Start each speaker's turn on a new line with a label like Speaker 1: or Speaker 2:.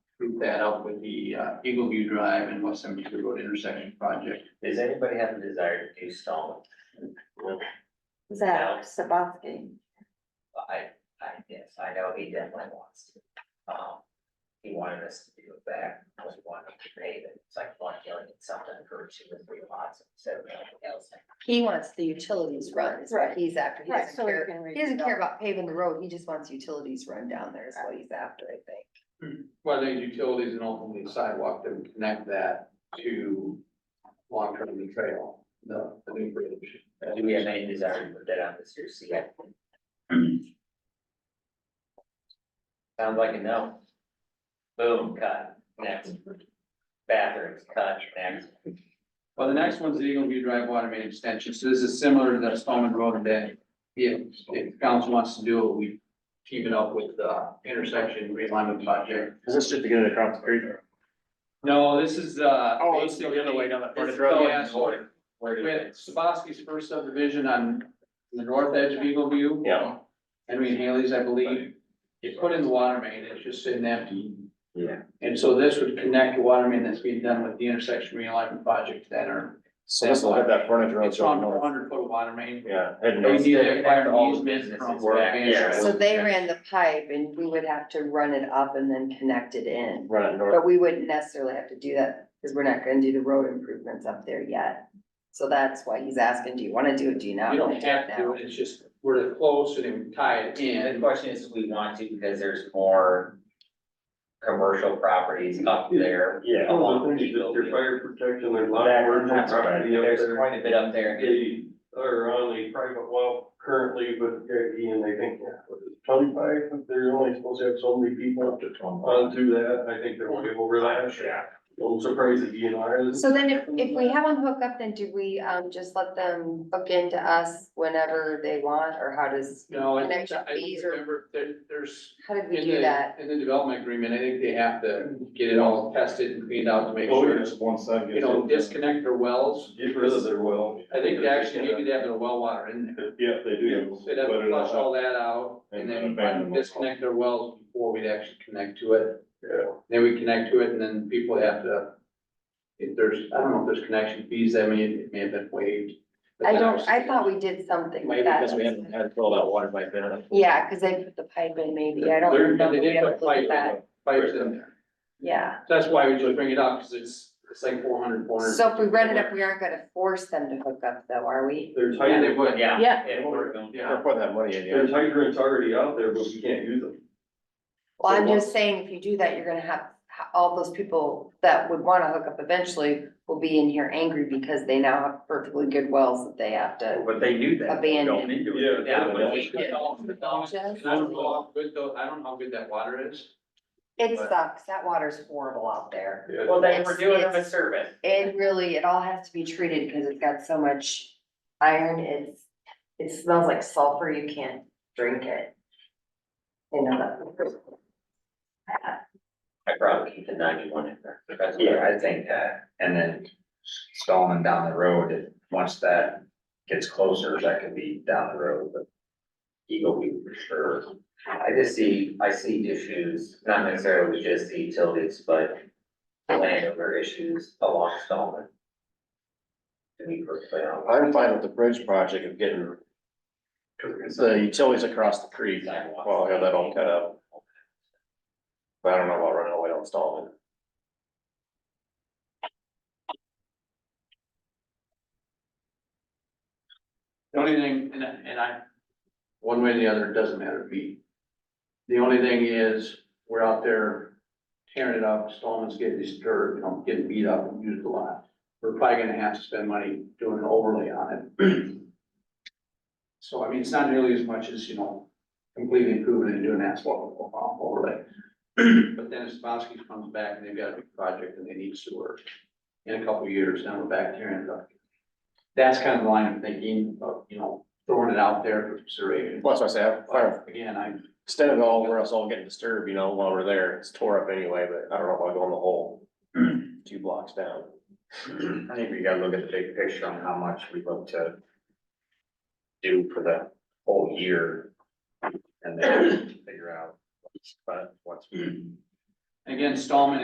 Speaker 1: that up with the uh, Eagle View Drive and West Seventy Two Road intersection project.
Speaker 2: Does anybody have a desire to do stone?
Speaker 3: Zach Sabowski.
Speaker 2: I, I guess, I know he definitely wants to. Um, he wanted us to do it back, I was wanting to pay it, it's like one million something for two or three lots instead of anything else.
Speaker 4: He wants the utilities run, is what
Speaker 3: Right.
Speaker 4: he's after. He
Speaker 3: Right,
Speaker 4: doesn't
Speaker 3: so we
Speaker 4: care,
Speaker 3: can
Speaker 4: he doesn't care
Speaker 3: redevelop.
Speaker 4: about paving the road, he just wants utilities run down there is what he's after, I think.
Speaker 1: Whether it's utilities and ultimately sidewalk that would connect that to long-term the trail, the, the new bridge.
Speaker 2: Do we have any desire to put that on this year's CIP? Sounds like a no. Boom, cut, next. Bathrooms, cut, next.
Speaker 1: Well, the next one's the Eagle View Drive Water Main Extension, so this is similar to the Spelman Road that if, if council wants to do it, we team it up with the intersection realignment project.
Speaker 5: Is this just to get it across the creek?
Speaker 1: No, this is, uh.
Speaker 5: Oh, it's still the other way down that part of the
Speaker 1: It's-
Speaker 5: road.
Speaker 1: oh, yeah, sorry.
Speaker 5: Where did
Speaker 1: With
Speaker 5: it?
Speaker 1: Sabaski's first subdivision on the north edge of Eagle View.
Speaker 5: Yeah.
Speaker 1: Henry and Haley's, I believe, it's put in the water main, it's just sitting empty.
Speaker 2: Yeah.
Speaker 1: And so this would connect the water main that's being done with the intersection realignment project that are.
Speaker 5: So this will hit that frontage road.
Speaker 1: It's
Speaker 5: so
Speaker 1: on
Speaker 5: north.
Speaker 1: four hundred foot of water main.
Speaker 5: Yeah. heading
Speaker 1: They
Speaker 5: north.
Speaker 1: need to acquire an
Speaker 2: All the
Speaker 1: easement
Speaker 2: businesses
Speaker 1: from
Speaker 2: back,
Speaker 1: Van
Speaker 5: yeah.
Speaker 1: Schuyler.
Speaker 4: So they ran the pipe and we would have to run it up and then connect it in.
Speaker 5: Run it north.
Speaker 4: But we wouldn't necessarily have to do that, because we're not gonna do the road improvements up there yet. So that's why he's asking, do you wanna do it, do you not?
Speaker 1: You
Speaker 4: wanna
Speaker 1: don't
Speaker 4: do
Speaker 1: have to,
Speaker 4: now?
Speaker 1: do it, it's just, we're close and it would tie it
Speaker 2: And the
Speaker 1: in.
Speaker 2: question is, do we want to, because there's more commercial properties up there.
Speaker 5: Yeah.
Speaker 6: Oh, the things that your fire protection, there's a lot of
Speaker 5: That-
Speaker 6: emergency
Speaker 5: that's right.
Speaker 6: property up
Speaker 2: There's
Speaker 6: there.
Speaker 2: quite a bit up there.
Speaker 6: They are on the private well currently, but they're, and they think, yeah, what is it, twenty-five, they're only supposed to have so many people
Speaker 5: to
Speaker 6: on through that, I think they're way over that.
Speaker 5: Yeah.
Speaker 6: I'm surprised the DNR is.
Speaker 4: So then if, if we have them hook up, then do we, um, just let them hook into us whenever they want, or how does,
Speaker 1: No, I think,
Speaker 4: Connection
Speaker 1: I
Speaker 4: fees or-
Speaker 1: remember, there, there's.
Speaker 4: how did we
Speaker 1: In
Speaker 4: do that?
Speaker 1: the, in the development agreement, I think they have to get it all tested and cleaned out to make
Speaker 6: Oh,
Speaker 1: sure,
Speaker 6: yeah.
Speaker 1: it's,
Speaker 5: one side.
Speaker 1: you know, disconnect their wells.
Speaker 6: Get rid of their well.
Speaker 1: I think they actually, maybe they have their well water in there.
Speaker 5: Yeah, they
Speaker 1: They'd have to flush all that out and
Speaker 5: And
Speaker 1: then
Speaker 5: abandon it.
Speaker 1: disconnect their wells before we'd actually connect to it.
Speaker 6: Yeah.
Speaker 1: Then we connect to it and then people have to, if there's, I don't know if there's connection fees, I mean, it may have been waived. but
Speaker 4: I
Speaker 1: then
Speaker 4: don't,
Speaker 1: was-
Speaker 4: I thought we did something
Speaker 5: Maybe
Speaker 4: with that.
Speaker 5: because we haven't had to fill that water pipe in.
Speaker 4: Yeah, cause they put the pipe in maybe, I don't
Speaker 1: They're-
Speaker 4: remember,
Speaker 1: They
Speaker 4: we
Speaker 1: did
Speaker 4: haven't
Speaker 1: put
Speaker 4: looked
Speaker 1: pipe,
Speaker 4: at that,
Speaker 1: pipes in there.
Speaker 4: yeah.
Speaker 1: That's why we just bring it up, because it's, it's like four hundred, four hundred.
Speaker 4: So if we rent it up, we aren't gonna force them to hook up though, are we?
Speaker 6: There's
Speaker 1: Yeah, they
Speaker 6: hydrants,
Speaker 1: would, yeah.
Speaker 4: Yeah.
Speaker 2: If we're going-
Speaker 1: Yeah.
Speaker 5: They're putting that money in, yeah.
Speaker 6: there's hydrants already out there, but we can't use them.
Speaker 4: Well, I'm
Speaker 6: So
Speaker 4: just saying, if you do that, you're gonna have, ha- all those people that would wanna hook up eventually will be in here angry because they now have perfectly good wells that they have to.
Speaker 2: But they knew that.
Speaker 4: Abandoned.
Speaker 2: Going into it.
Speaker 6: Yeah.
Speaker 2: Yeah, but we-
Speaker 1: I don't know how good though, I don't know how good that water is.
Speaker 4: It
Speaker 1: But-
Speaker 4: sucks, that water's horrible out there.
Speaker 6: Yeah.
Speaker 2: Well, they were
Speaker 4: It's-
Speaker 2: doing them a
Speaker 4: it's-
Speaker 2: service.
Speaker 4: It really, it all has to be treated because it's got so much iron, it's, it smells like sulfur, you can't drink it. You know, that.
Speaker 2: I probably keep the ninety-one in there. Yeah, I think that, and then Stallman down the road, if, once that gets closer, that could be down the road, but. Eagle View for sure. I just see, I see issues, not necessarily just the utilities, but landowner issues along Stallman. To be perfectly honest.
Speaker 5: I'm fine with the bridge project of getting the utilities across the creek. Well, I have that all cut out. But I don't know about running away on Stallman.
Speaker 1: The only thing, and I, and I, one way or the other, it doesn't matter to me. The only thing is, we're out there tearing it up, Stallman's getting disturbed, you know, getting beat up and used a lot. We're probably gonna have to spend money doing an overlay on it. So I mean, it's not nearly as much as, you know, completely improving and doing asphalt overlay. But then if Spassky comes back and they've got a big project and they need sewer in a couple of years, now we're back tearing it up that's kind of the line of thinking of, you know, throwing it out there for consideration.
Speaker 5: Plus, I say, I'm fine
Speaker 1: But Again, I,
Speaker 5: Instead of all, where else all getting disturbed, you know, while we're there, it's tore up anyway, but I don't know if I'll go in the hole two blocks down.
Speaker 7: I think we gotta look at the big picture on how much we look to do for the whole year. And then figure out what's, but what's
Speaker 1: again, Stallman